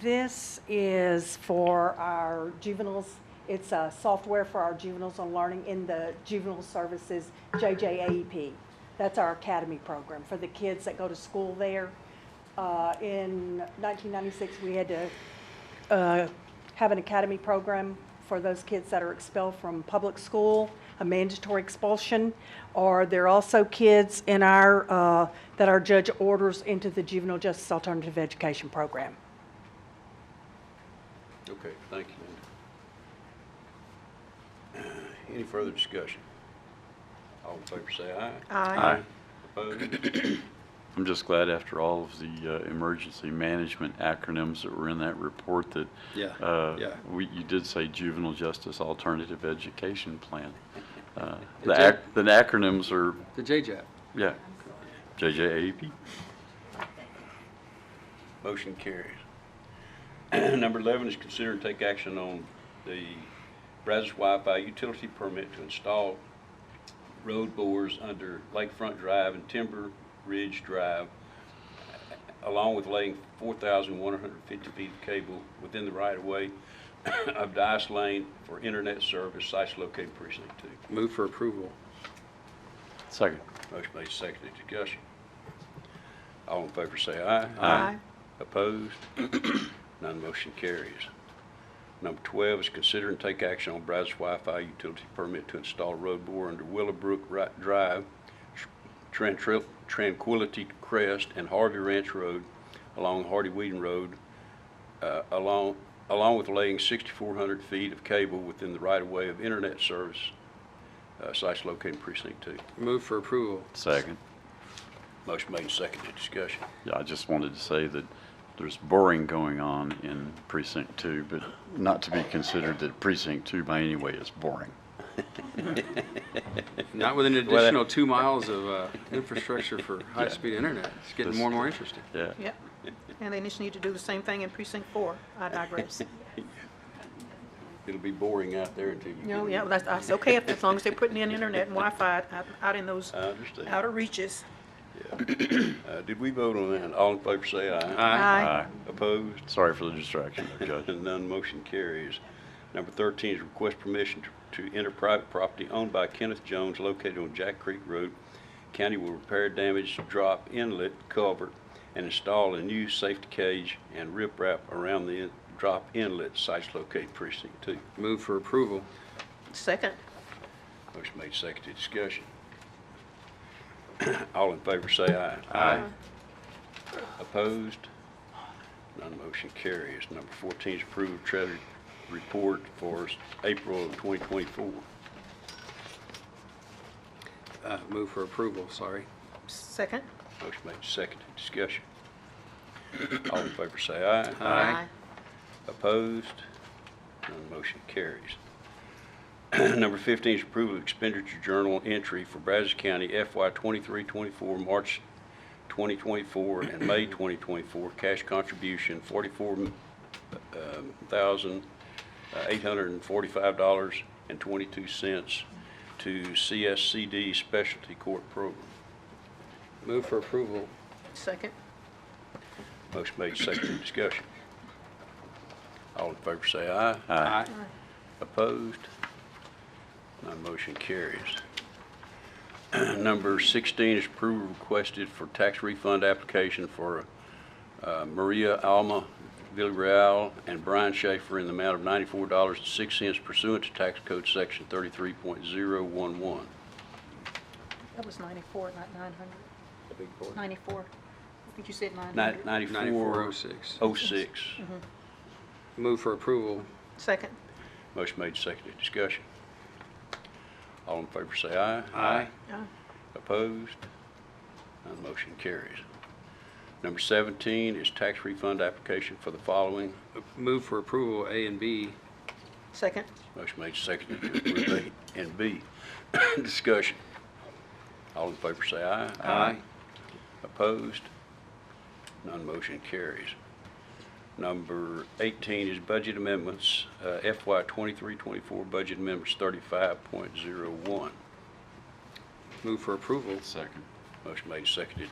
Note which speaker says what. Speaker 1: This is for our juveniles. It's uh, software for our juveniles on learning in the juvenile services JJAEP. E That's our academy program for the kids that go to school there. Uh, In 1996, we had to uh, have an academy program for those kids that are expelled from public school, a mandatory expulsion, or there are also kids in our, uh, that our judge orders into the juvenile justice alternative education program.
Speaker 2: Okay, thank you, Linda. Uh, Any further discussion? All in favor say aye.
Speaker 3: Aye.
Speaker 2: Opposed?
Speaker 3: I'm just glad after all of the uh, emergency management acronyms that were in that report that
Speaker 2: Yeah,
Speaker 3: uh,
Speaker 2: yeah.
Speaker 3: we- you did say Juvenile Justice Alternative Education Plan. Uh, The
Speaker 4: It's a-
Speaker 3: ac- the acronyms are,
Speaker 4: The JJAP.
Speaker 3: yeah, JJAEP.
Speaker 2: Motion carries. Number 11 is consider and take action on the Brazos Wi-Fi utility permit to install road bores under Lakefront Drive and Timber Ridge Drive, along with laying 4,150 feet of cable within the right-of-way of Dice Lane for internet service, sites located precinct two.
Speaker 4: Move for approval.
Speaker 3: Second.
Speaker 2: Motion made, seconded, discussion. All in favor say aye.
Speaker 3: Aye.
Speaker 2: Opposed? None motion carries. Number 12 is consider and take action on Brazos Wi-Fi utility permit to install road bore under Willowbrook Ri- Drive, Tran- Tran- Tranquility Crest, and Harvey Ranch Road along Hardy Whedon Road, uh, along along with laying 6,400 feet of cable within the right-of-way of internet service, uh, sites located in precinct 2.
Speaker 4: Move for approval.
Speaker 3: Second.
Speaker 2: Motion made and seconded. Discussion.
Speaker 3: Yeah, I just wanted to say that there's boring going on in precinct two, but not to be considered that precinct two by any way is boring.
Speaker 4: Not with an
Speaker 2: that-
Speaker 4: additional two miles of uh, infrastructure for high-speed internet. It's getting more and more interesting.
Speaker 3: Yeah.
Speaker 5: Yep. And they just need to do the same thing in precinct four. I digress.
Speaker 2: It'll be boring out there until you get...
Speaker 5: No, yeah, that's, that's okay, if- as long as they're putting in internet and Wi-Fi out- out in those
Speaker 2: I understand.
Speaker 5: outer reaches.
Speaker 2: Uh, Did we vote on that? All in favor say aye.
Speaker 4: Aye.
Speaker 3: Aye.
Speaker 2: Opposed?
Speaker 3: Sorry for the distraction, there, Judge.
Speaker 2: None motion carries. Number 13 is request permission to to enter private property owned by Kenneth Jones located on Jack Creek Road. County will repair damaged drop inlet culvert and install a new safety cage and riprap around the in- drop inlet sites located precinct 2.
Speaker 4: Move for approval.
Speaker 5: Second,
Speaker 2: Motion made, seconded, discussion. All in favor say aye. Aye. Opposed? None motion carries. Number 14 is approved treasury report for s- April of 2024.
Speaker 4: Uh, Move for approval, sorry.
Speaker 5: second.
Speaker 2: Motion made, seconded, discussion. All in favor say aye.
Speaker 4: Aye.
Speaker 2: Opposed? None motion carries. Number 15 is approval of expenditure journal entry for Brazos County FY 23-24, March 2024, and May 2024, cash contribution um, uh, $44,845.22 to CSCD Specialty Court Program.
Speaker 4: Move for approval.
Speaker 5: Second,
Speaker 2: Motion made, seconded, discussion. All in favor say aye.
Speaker 4: Aye.
Speaker 2: Opposed? None motion carries. Number 16 is approval requested for tax refund application for uh, Maria Alma Villarreal and Brian Schaefer in the amount of $94.06 pursuant to Tax Code Section 33.011.
Speaker 5: that was ninety-four, not nine hundred. Ninety-four. I think you said nine
Speaker 2: Ni-
Speaker 5: hundred.
Speaker 4: 9406.
Speaker 2: 9406.
Speaker 4: Move for approval.
Speaker 5: Second,
Speaker 2: Motion made, seconded, discussion. All in favor say aye.
Speaker 5: Aye.
Speaker 2: Opposed? None motion carries. Number 17 is tax refund application for the following.
Speaker 4: Move for approval, A and B.
Speaker 5: second,
Speaker 2: Motion made, seconded, to approve A and B. Discussion. All in favor say aye. Opposed? None motion carries. Number 18 is budget amendments, uh, FY 23-24 budget amendments 35.01.
Speaker 4: Move for approval.
Speaker 3: Second.
Speaker 2: Motion made, seconded,